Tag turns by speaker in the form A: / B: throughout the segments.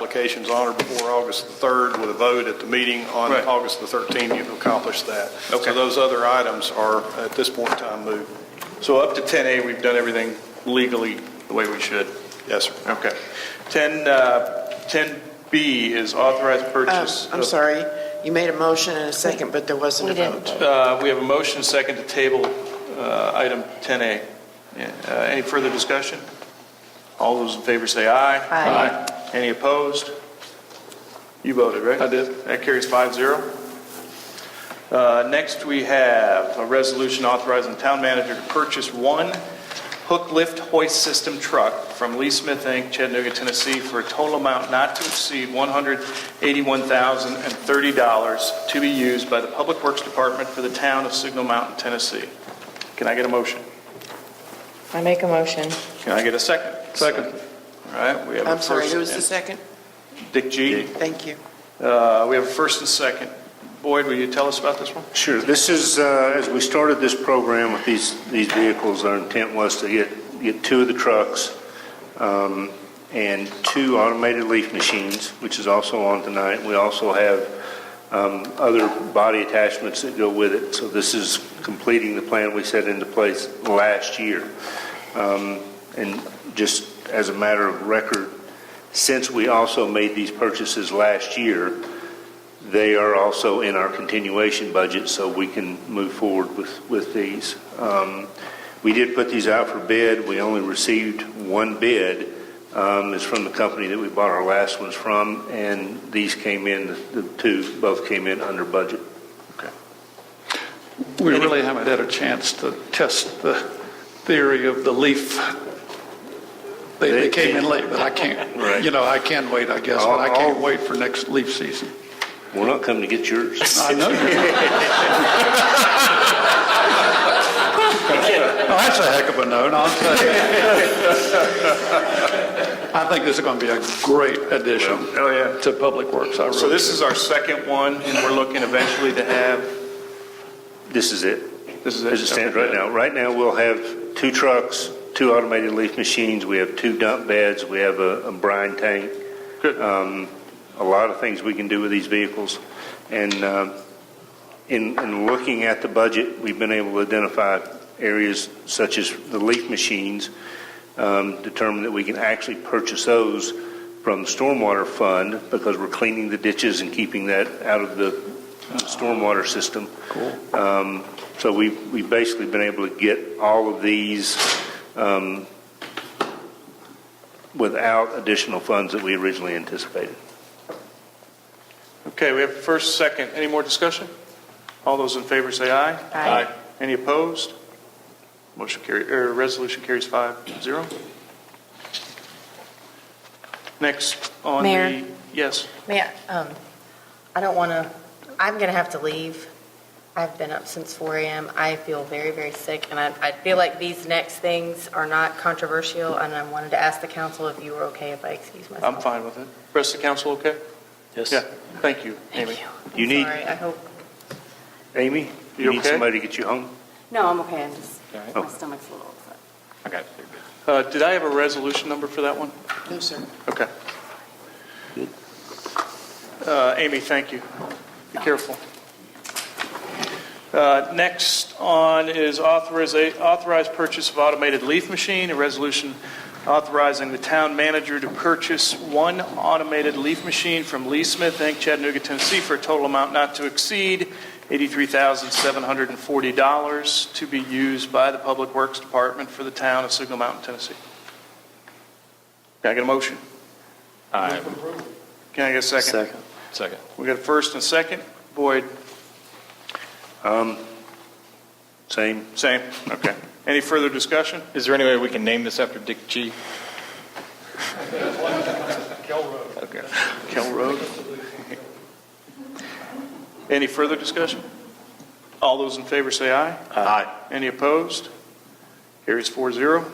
A: applications on or before August the 3rd with a vote at the meeting on
B: Right.
A: August the 13th, you've accomplished that.
B: Okay.
A: So those other items are, at this point in time, moved.
B: So up to 10A, we've done everything legally the way we should.
A: Yes, sir.
B: Okay. 10, uh, 10B is authorized
C: Um,
B: purchase.
C: I'm
B: of-
C: sorry, you made a motion and a second, but there wasn't a
D: We didn't.
C: vote.
B: Uh, We have a motion second to table uh, item 10A. Yeah, uh, Any further discussion? All those in favor say aye.
D: Aye.
B: Any opposed? You voted, right? I did. That carries 5-0. Uh, Next, we have a resolution authorizing the town manager to purchase one hook lift hoist system truck from Lee Smith Inc., Chattanooga, Tennessee, for a total amount not to exceed $181,030 to be used by the Public Works Department for the town of Signal Mountain, Tennessee. Can I get a motion?
D: I make a motion.
B: Can I get a second? Second. All right, we have a
C: I'm sorry,
B: first.
C: who was the second?
B: Dick G.
C: Thank you.
B: Uh, We have a first and second. Boyd, will you tell us about this one?
E: Sure. This is, uh, as we started this program with these, these vehicles, our intent was to get, get two of the trucks um, and two automated leaf machines, which is also on tonight. We also have um, other body attachments that go with it. So this is completing the plan we set into place last year. Um, And just as a matter of record, since we also made these purchases last year, they are also in our continuation budget, so we can move forward with, with these. Um, We did put these out for bid. We only received one bid. Um, It's from the company that we bought our last ones from, and these came in, the two, both came in under budget.
F: We really haven't had a chance to test the theory of the leaf. They, they came in late, but I
E: Right.
F: can't, you know, I can wait, I guess, but I can't wait for next leaf season.
E: We're not coming to get yours.
F: I know. you- Oh, That's a heck of a note, I'll tell you. I think this is going to be a great addition
B: Oh, yeah.
F: to Public Works, I really
B: So this
F: do.
B: is our second one, and we're looking eventually to have,
E: This is it.
B: this is.
E: As it stands right now. Right now, we'll have two trucks, two automated leaf machines, we have two dump beds, we have a a brine tank.
B: Good.
E: Um, A lot of things we can do with these vehicles. And um, in, in looking at the budget, we've been able to identify areas such as the leaf machines, um, determine that we can actually purchase those from the stormwater fund because we're cleaning the ditches and keeping that out of the stormwater system. Cool. So we, we've basically been able to get all of these um, without additional funds that we originally anticipated.
B: Okay, we have first, second. Any more discussion? All those in favor say aye.
D: Aye.
B: Any opposed? Motion carry, or resolution carries five zero. Next on the.
D: Mayor.
B: Yes.
G: May I, um, I don't want to, I'm going to have to leave. I've been up since 4 AM. I feel very, very sick, and I, I feel like these next things are not controversial, and I wanted to ask the council if you were okay if I excuse myself.
B: I'm fine with it. Rest of the council, okay? Yes. Yeah, thank you,
G: Thank
B: Amy.
G: you. I'm
E: You need,
G: Sorry, I hope,
E: Amy,
B: You
E: you need
B: okay?
E: somebody to get you home?
G: no, I'm okay. I'm just,
E: Oh.
G: my stomach's a little upset.
B: Uh, Did I have a resolution number for that one?
C: No, sir.
B: Okay. Uh, Amy, thank you. Be careful. Uh, Next on is authoriza- authorized purchase of automated leaf machine, a resolution authorizing the town manager to purchase one automated leaf machine from Lee Smith Inc., Chattanooga, Tennessee, for a total amount not to exceed $83,740 to be used by the Public Works Department for the town of Signal Mountain, Tennessee. Can I get a motion? Can I get a second? Second.
H: Second.
B: We got a first and a second. Boyd,
E: Um, Same,
B: same. Okay. Any further discussion?
H: Is there any way we can name this after Dick G?
B: Kell Road. Any further discussion? All those in favor say aye. Aye. Any opposed? Carries four zero.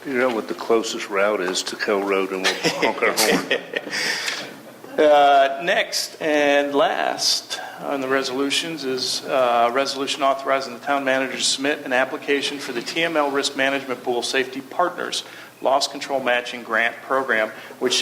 E: figure out what the closest route is to Kell Road and we'll honk our horn.
B: Uh, Next and last on the resolutions is uh, resolution authorizing the town manager to submit an application for the TML Risk Management Pool Safety Partners Loss Control Matching Grant Program, which